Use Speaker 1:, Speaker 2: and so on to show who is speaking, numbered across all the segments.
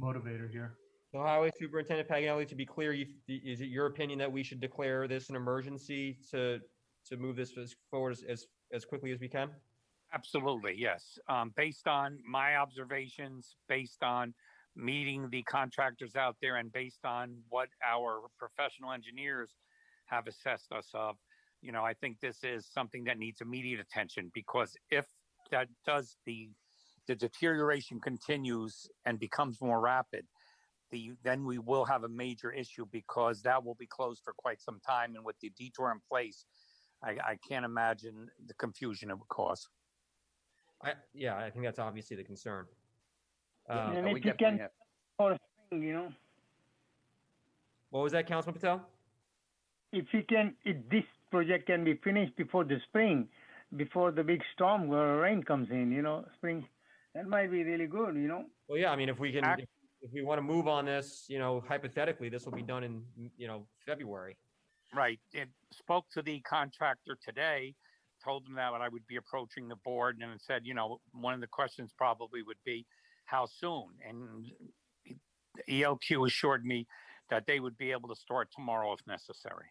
Speaker 1: motivator here.
Speaker 2: So Highway Superintendent Paganelli, to be clear, you, is it your opinion that we should declare this an emergency to, to move this as- forward as- as, as quickly as we can?
Speaker 3: Absolutely, yes. Um, based on my observations, based on meeting the contractors out there and based on what our professional engineers have assessed us of, you know, I think this is something that needs immediate attention because if that does the the deterioration continues and becomes more rapid, the then we will have a major issue because that will be closed for quite some time and with the detour in place, I, I can't imagine the confusion it would cause.
Speaker 2: I, yeah, I think that's obviously the concern.
Speaker 4: Yeah,
Speaker 2: Uh,
Speaker 4: And
Speaker 3: we
Speaker 4: if you
Speaker 3: definitely
Speaker 4: can-
Speaker 3: have-
Speaker 4: for a spring, you know.
Speaker 2: What was that, Councilman Patel?
Speaker 4: If you can, if this project can be finished before the spring, before the big storm or rain comes in, you know, spring, that might be really good, you know.
Speaker 2: Well, yeah, I mean, if we can,
Speaker 3: Act-
Speaker 2: if we want to move on this, you know, hypothetically, this will be done in, you know, February.
Speaker 3: Right. It spoke to the contractor today, told them that I would be approaching the board and it said, you know, one of the questions probably would be how soon? And ELQ assured me that they would be able to start tomorrow if necessary.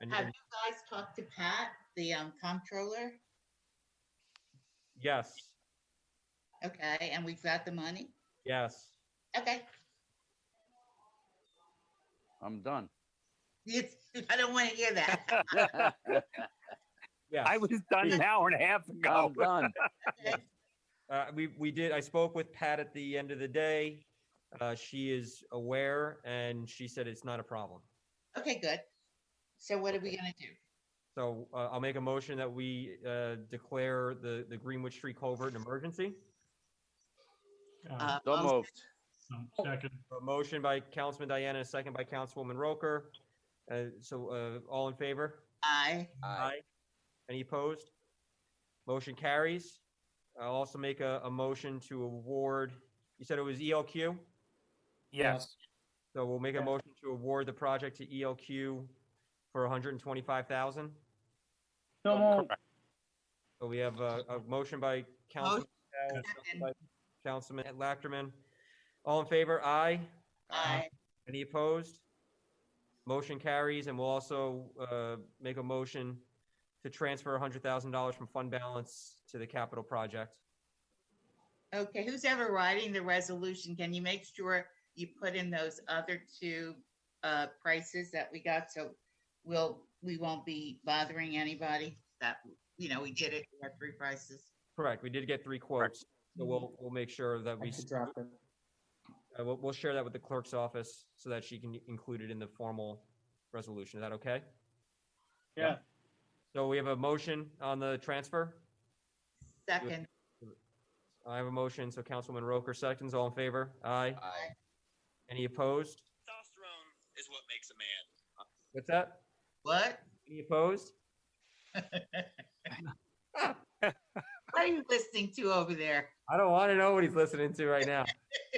Speaker 2: And,
Speaker 5: Have
Speaker 2: and
Speaker 5: you guys talked to Pat, the um, comptroller?
Speaker 2: yes,
Speaker 5: Okay, and we've got the money?
Speaker 2: yes.
Speaker 5: Okay,
Speaker 6: I'm done.
Speaker 5: It's- I don't want to hear that.
Speaker 2: Yes.
Speaker 3: I was done an hour and a half ago.
Speaker 6: I'm done.
Speaker 5: Okay.
Speaker 2: Uh, we, we did, I spoke with Pat at the end of the day. Uh, she is aware and she said it's not a problem.
Speaker 5: Okay, good. So what are we gonna do?
Speaker 2: So uh, I'll make a motion that we uh, declare the, the Greenwood Street culvert an emergency.
Speaker 1: Uh,
Speaker 2: Um,
Speaker 5: Uh,
Speaker 6: So
Speaker 5: I'll-
Speaker 6: moved.
Speaker 1: so Second,
Speaker 2: A motion by Councilman Diana, a second by Councilwoman Roker. Uh, So uh, all in favor?
Speaker 5: Aye,
Speaker 6: Aye.
Speaker 2: Any opposed? Motion carries. I'll also make a, a motion to award, you said it was ELQ?
Speaker 3: Yes.
Speaker 2: So we'll make a
Speaker 4: Yeah.
Speaker 2: motion to award the project to ELQ for 125,000.
Speaker 4: So more,
Speaker 3: Correct.
Speaker 2: So we have a, a motion by Councilman, Patel,
Speaker 5: Second.
Speaker 2: by Councilman Lachman. All in favor? Aye. Uh-huh.
Speaker 5: aye,
Speaker 2: Any opposed? Motion carries, and we'll also uh, make a motion to transfer $100,000 from fund balance to the capital project.
Speaker 5: okay, who's ever writing the resolution, can you make sure you put in those other two uh, prices that we got, so we'll, we won't be bothering anybody? That, you know, we did it, we had three prices.
Speaker 2: Correct, we did get three quotes, so we'll, we'll make sure that we, uh, we'll, we'll share that with the clerk's office so that she can include it in the formal resolution. Is that okay?
Speaker 4: yeah,
Speaker 2: So we have a motion on the transfer.
Speaker 5: Second,
Speaker 2: I have a motion, so Councilwoman Roker seconds, all in favor? Aye.
Speaker 6: Aye.
Speaker 2: Any opposed?
Speaker 7: testosterone is what makes a man.
Speaker 2: What's that?
Speaker 5: what?
Speaker 2: Any opposed?
Speaker 5: What are you listening to over there?
Speaker 2: I don't want to know what he's listening to right now.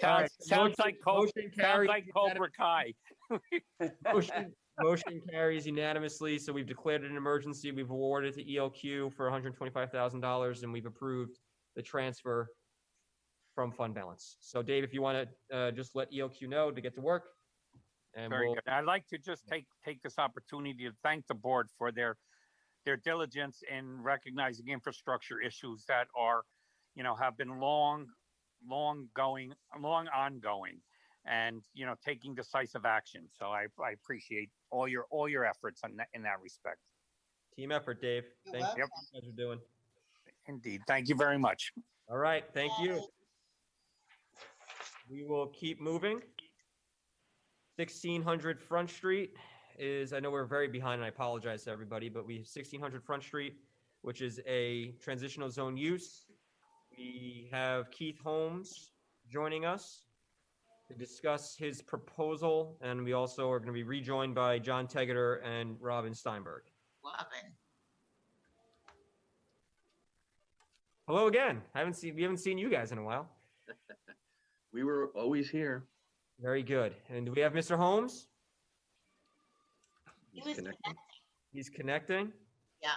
Speaker 2: All right, motion-
Speaker 3: Sounds like Cobra,
Speaker 2: motion
Speaker 3: sounds
Speaker 2: carries
Speaker 3: like Cobra Kai.
Speaker 2: Motion motion carries unanimously, so we've declared it an emergency, we've awarded it to ELQ for hundred and twenty-five thousand dollars, and we've approved the transfer from fund balance. So Dave, if you want to, uh, just let ELQ know to get to work. And
Speaker 3: Very
Speaker 2: we'll,
Speaker 3: good. I'd like to just take, take this opportunity to thank the board for their, their diligence in recognizing infrastructure issues that are, you know, have been long, long going, long ongoing and, you know, taking decisive action. So I, I appreciate all your, all your efforts in that, in that respect.
Speaker 2: team effort, Dave.
Speaker 5: You're
Speaker 2: Thank you.
Speaker 3: Yep.
Speaker 2: You guys are doing.
Speaker 3: Indeed. Thank you very much.
Speaker 2: All right, thank you. We will keep moving. Sixteen hundred Front Street is, I know we're very behind, and I apologize to everybody, but we have sixteen hundred Front Street, which is a transitional zone use. We have Keith Holmes joining us to discuss his proposal, and we also are going to be rejoined by John Tegeter and Robin Steinberg.
Speaker 5: Robin.
Speaker 2: Hello again. I haven't seen, we haven't seen you guys in a while.
Speaker 8: We were always here.
Speaker 2: Very good. And do we have Mr. Holmes?
Speaker 5: He was
Speaker 8: Connect-
Speaker 5: connected,
Speaker 2: He's connecting.
Speaker 5: Yeah.